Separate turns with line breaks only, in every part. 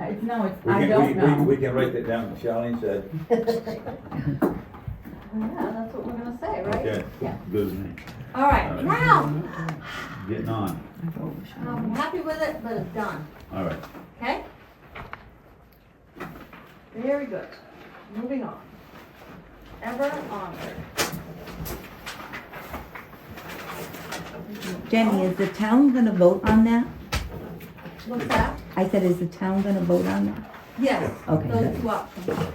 Uh,
It's, no, it's,
We
I
can, we,
don't know.
we, we can write that down, Charlene said.
Yeah, that's what we're gonna say, right?
Okay.
Yeah.
Good,
All right, wow,
getting on,
I'm um, happy with it, but it's done,
all right.
okay? Very good, moving on. Ever onward.
Jenny, is the town gonna vote on that?
What's that?
I said, is the town gonna vote on that?
Yes,
Okay,
those
good.
two options.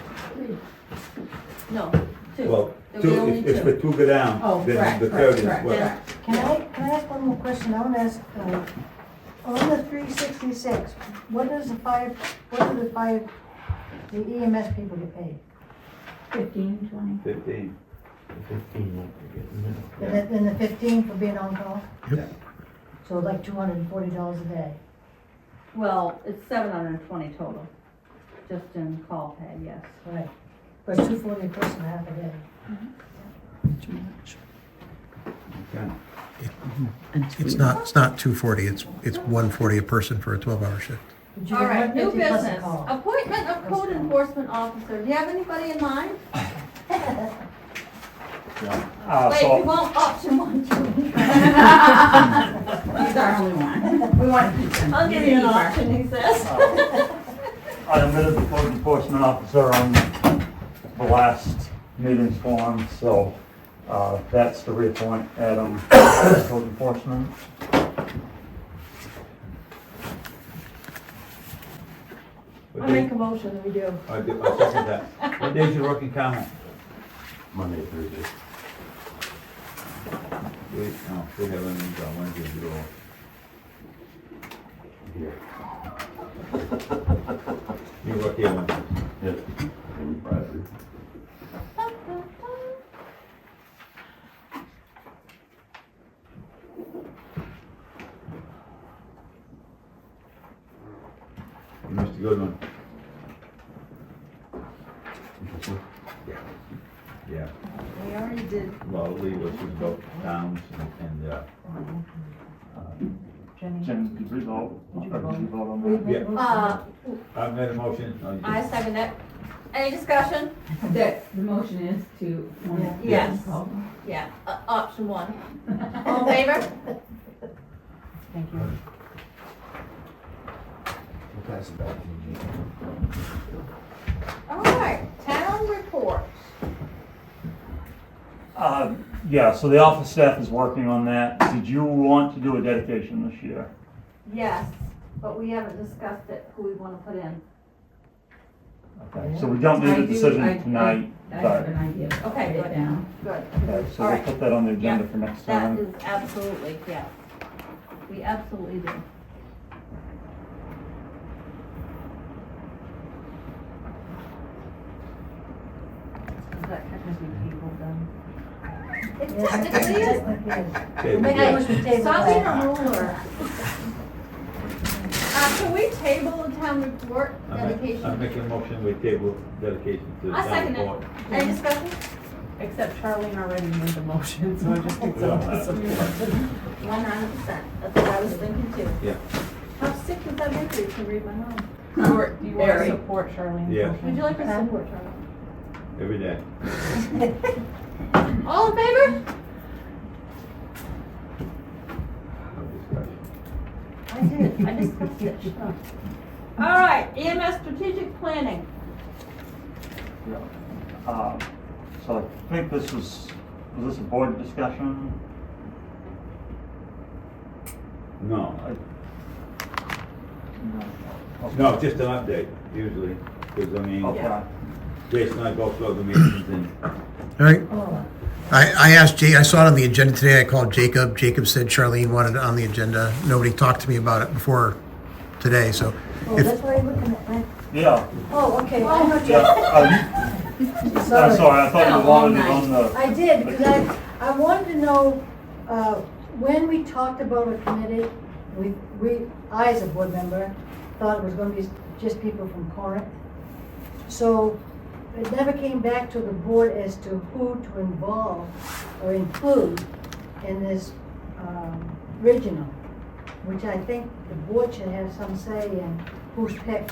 No, two.
Well,
There'll be
two,
only
if, if
two.
the two go
Oh,
down, then
correct,
the
correct,
third is
correct,
what?
yeah.
Can I, can I ask one more question? I want to ask, uh, on the three sixty-six, what does the five, what do the five, the EMS people get paid?
Fifteen, twenty.
Fifteen.
Fifteen, like we're getting
And then- then the fifteen for being on call?
Yep.
So like two hundred and forty dollars a day.
Well, it's seven hundred and twenty total, just in call pay, yes.
Right. But two forty a person half a day.
Okay.
It's not, it's not two forty, it's, it's one forty a person for a twelve-hour shift.
But you
All
get
right, new
150 plus a
business,
call.
appointment of code enforcement officer, do you have anybody in mind?
Uh,
Wait, we
so,
want option one, two.
He's our only one. We want to keep him.
I'll
He's
give you
a
an
keeper.
option, he says.
I admitted the code enforcement officer on the last meeting's forum, so, uh, that's the reappoint, Adam, as code enforcement.
What
I make
day,
a motion that we do.
I do, I second that. What day's your working comment?
Monday, Thursday.
We, no, we have a meeting on Wednesday, we do all.
Here.
You work here Wednesday.
Yes. And Friday.
You must go to, yeah,
We already did.
well, Lee was in both towns and, and, uh,
Jen, did we vote? Or did you vote on that?
yeah,
Uh,
I made a motion. oh, you-
I second it. Any discussion?
That, the motion is to.
Yes. Yeah, uh, option one. All in favor?
Thank you.
All right, town report.
Uh, yeah, so the office staff is working on that. Did you want to do a dedication this year?
Yes, but we haven't discussed it, who we want to put in.
Okay, so we don't need
I
a
do- I- I-
decision tonight,
I have
but,
an idea.
Okay,
Write it
good.
down.
Good.
okay, so
All
we'll
right.
put that on the agenda for next
That
time.
is absolutely, yes. We absolutely do.
Is that technically people done?
It
Yes,
technically is.
yes,
Okay,
Make
yeah.
a motion to table
Stop being
that.
a ruler. Uh, can we table the town report
I make- I
dedication?
make a motion, we table dedication to the
I
town
second it.
board.
Any discussion?
Except Charlene already made the motion, so I just picked
We all
up
have
this.
it.
One hundred percent, that's what I was thinking too.
Yeah.
How sick is that baby? You can read my mind.
Do you want to
Very.
support Charlene's
Yes.
motion?
Would you like a support, Charlie?
Every day.
All in favor?
No discussion.
I did, I discussed it. All right, EMS strategic planning.
Yeah. Uh, So I think this was, was this a board discussion?
No,
I- No. Okay.
no, just an update usually, because I mean,
Okay.
Jason and I go through the meetings and
All right,
Oh,
I, I asked Jay, I saw it on the agenda today, I called Jacob, Jacob said Charlene wanted it on the agenda, nobody talked to me about it before today, so
oh,
if,
that's why you're looking at, that.
Yeah,
oh, okay, I know,
yeah.
Jeff.
uh, I'm
sorry.
Uh, sorry, I thought
Been
you
a long
wanted it on the.
I did, because I, I wanted to know, uh, when we talked about a committee, we, we, I as a board member, thought it was gonna be just people from Corinth. So it never came back to the board as to who to involve or include in this, um, regional, which I think the board should have some say in who's picked